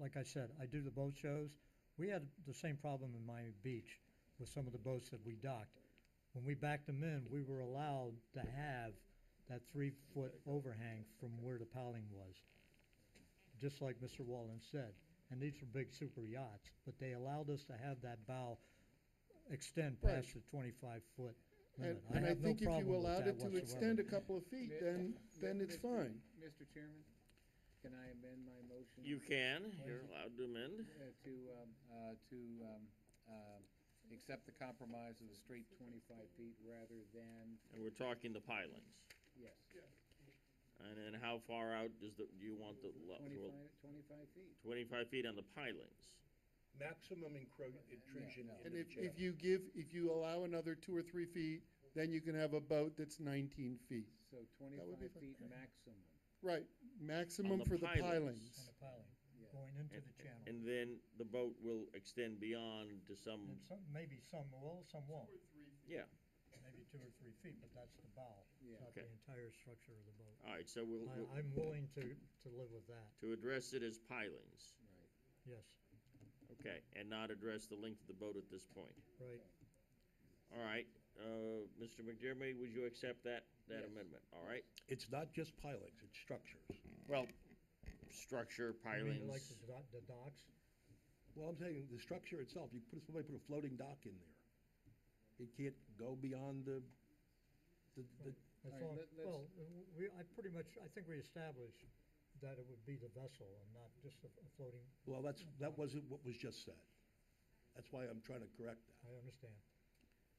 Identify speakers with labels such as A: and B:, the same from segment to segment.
A: like I said, I do the boat shows. We had the same problem in Miami Beach with some of the boats that we docked. When we backed them in, we were allowed to have that three-foot overhang from where the piling was, just like Mr. Wallen said. And these were big super yachts, but they allowed us to have that bow extend past the twenty-five foot
B: And,
A: limit. I
B: and I
A: have no
B: think if
A: problem
B: you
A: with
B: allowed
A: that
B: it to
A: whatsoever.
B: extend a couple of feet,
C: Mi-
B: then, then
C: mi-
B: it's
C: Mr.
B: fine.
C: Mr. Chairman, can I amend my motion?
D: You can, you're allowed to amend.
C: uh, To, um, uh, to, um, um, accept the compromise of the straight twenty-five feet rather than,
D: And we're talking the pilings.
C: yes,
D: And then how far out does the, do you want the, lo- well,
C: twenty-five, twenty-five feet.
D: twenty-five feet on the pilings?
E: Maximum encro- intrusion
C: no.
E: into
B: And
E: the
B: if,
E: channel.
B: if you give, if you allow another two or three feet, then you can have a boat that's nineteen feet.
C: So
B: would be
C: twenty-five
B: fine.
C: feet maximum.
B: Right,
D: On
B: maximum
D: the
B: for the
D: pilings.
B: pilings.
A: On the piling,
C: Yeah.
A: going into
D: And-
A: the channel.
D: And then the boat will extend beyond to some,
A: And some, maybe some will, some won't,
D: Mm. yeah.
A: maybe two or three feet, but that's the bow,
C: Yeah.
A: not the
D: Okay.
A: entire structure of the boat.
D: All right, so we'll, we'll-
A: I, I'm willing to, to live with that,
D: to address it as pilings,
C: Right.
A: yes,
D: okay, and not address the length of the boat at this point.
A: right.
D: All right, uh, Mr. McDermott, would you accept that, that
C: Yes.
D: amendment? All right,
E: It's not just pilings, it's structures.
D: well, structure,
A: I mean, Like
D: pilings,
A: the dock- the docks,
E: Well, I'm saying the structure itself, you put, somebody put a floating dock in there. It can't go beyond the, the, the,
A: as
C: All right,
A: long,
C: let- let's-
A: well, uh, we, I pretty much, I think we established that it would be the vessel and not just a a floating,
E: well, that's, that wasn't what was just said. That's why I'm trying to correct that.
A: I understand,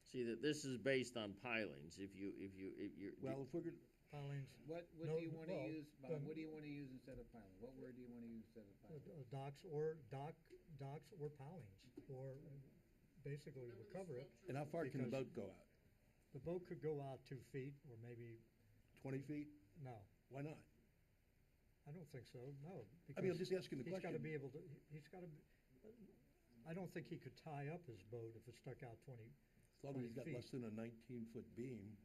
D: see that this is based on pilings, if you, if you, if you're.
E: Well, if we're, gonna-
A: pilings,
C: What, what
A: No,
C: do you wanna
A: well,
C: use, Bob,
A: then-
C: what do you wanna use instead of piling? What word do you wanna use instead of
A: uh,
C: piling?
A: uh, docks or dock, docks or pilings, or basically recover it.
E: and how far can the
A: Because-
E: boat go out?
A: The boat could go out two feet or maybe,
E: Twenty feet?
A: no,
E: Why not?
A: I don't think so, no.
E: I mean, I'm
A: because-
E: just asking the
A: He's gotta be
E: question.
A: able to, he- he's gotta, be- I don't think he could tie up his boat if it stuck out twenty,
E: As long as he's got
A: 20 feet.
E: less than a nineteen-foot beam,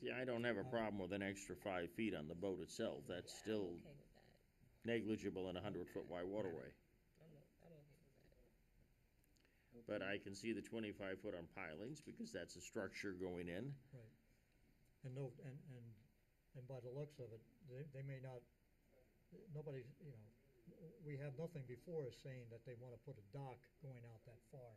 D: See, I don't have a problem with an extra five feet on the boat itself, that's still
F: okay with that.
D: negligible in a hundred-foot wide waterway.
F: I'm, o- I'm okay with that.
D: But I can see the twenty-five foot on pilings, because that's a structure going in.
A: right? And no, and, and, and by the looks of it, they, they may not, nobody, you know, we have nothing before us saying that they wanna put a dock going out that far.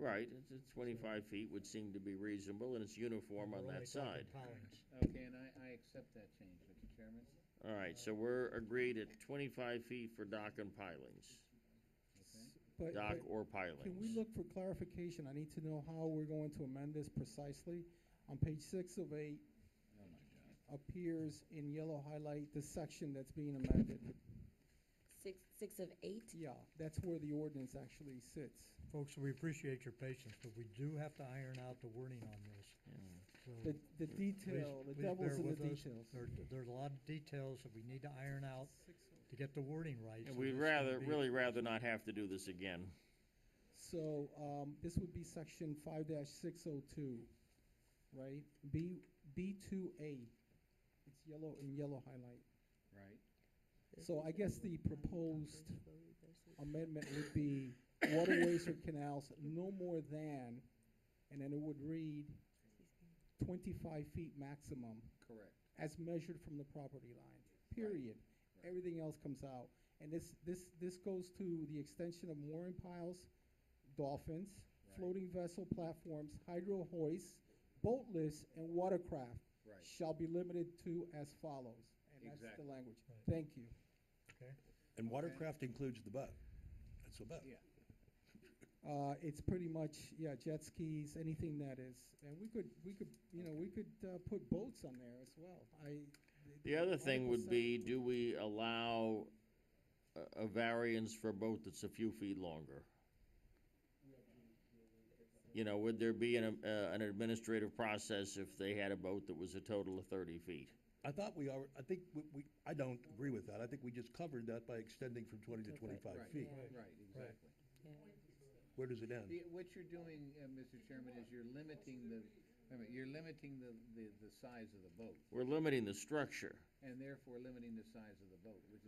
D: Right, it's, it's twenty-five feet would seem to be reasonable, and it's uniform on
A: We're only
D: that side.
A: talking pilings.
C: Okay, and I, I accept that change, Mr. Chairman.
D: All right, so we're agreed at twenty-five feet for dock and pilings,
C: Okay.
G: But,
D: dock
G: but
D: or
G: can we
D: pilings.
G: look for clarification? I need to know how we're going to amend this precisely. On page six of eight
C: Oh, my God.
G: appears in yellow highlight the section that's being amended.
F: Six, six of eight?
G: Yeah, that's where the ordinance actually sits.
A: Folks, we appreciate your patience, but we do have to iron out the wording on this. So
G: The, the detail, the
A: please bear
G: devil's in the
A: with us.
G: details.
A: there, there's a lot of details that we need to iron out to get the wording right.
D: And
A: so
D: we'd
A: this can
D: rather,
A: be-
D: really rather not have to do this again.
G: So, um, this would be section five six oh two, right? B, B two A. It's yellow, in yellow highlight.
C: Right,
G: So I guess the proposed um, amendment would be waterways or canals no more than, and then it would read twenty-five feet maximum
C: correct.
G: as measured from the property line, period.
C: Right.
G: Everything else comes out. And this, this, this goes to the extension of mooring piles, dolphins,
C: Right.
G: floating vessel platforms, hydro hoists, boat lifts, and watercraft
C: Right.
G: shall be limited to as follows. And that's the
C: Exactly.
G: language.
A: Right.
G: Thank you.
A: Okay.
E: and watercraft includes the boat. That's a boat.
C: Yeah.
G: Uh, it's pretty much, yeah, jet skis, anything that is, and we could, we could, you know, we could, uh, put boats on there as well, I.
D: The other thing would
G: Article
D: be,
G: seven-
D: do we allow a, a variance for a boat that's a few feet longer? You know, would there be an, uh, an administrative process if they had a boat that was a total of thirty feet?
E: I thought we are, I think we- we, I don't agree with that. I think we just covered that by extending from 20 to 25
C: Right,
E: feet.
C: Right, exactly.
E: Where does it end?
C: The- What you're doing, uh, Mr. Chairman, is you're limiting the, I mean, you're limiting the, the, the size of the boat,
D: We're limiting the structure.
C: and therefore limiting the size of the boat, which is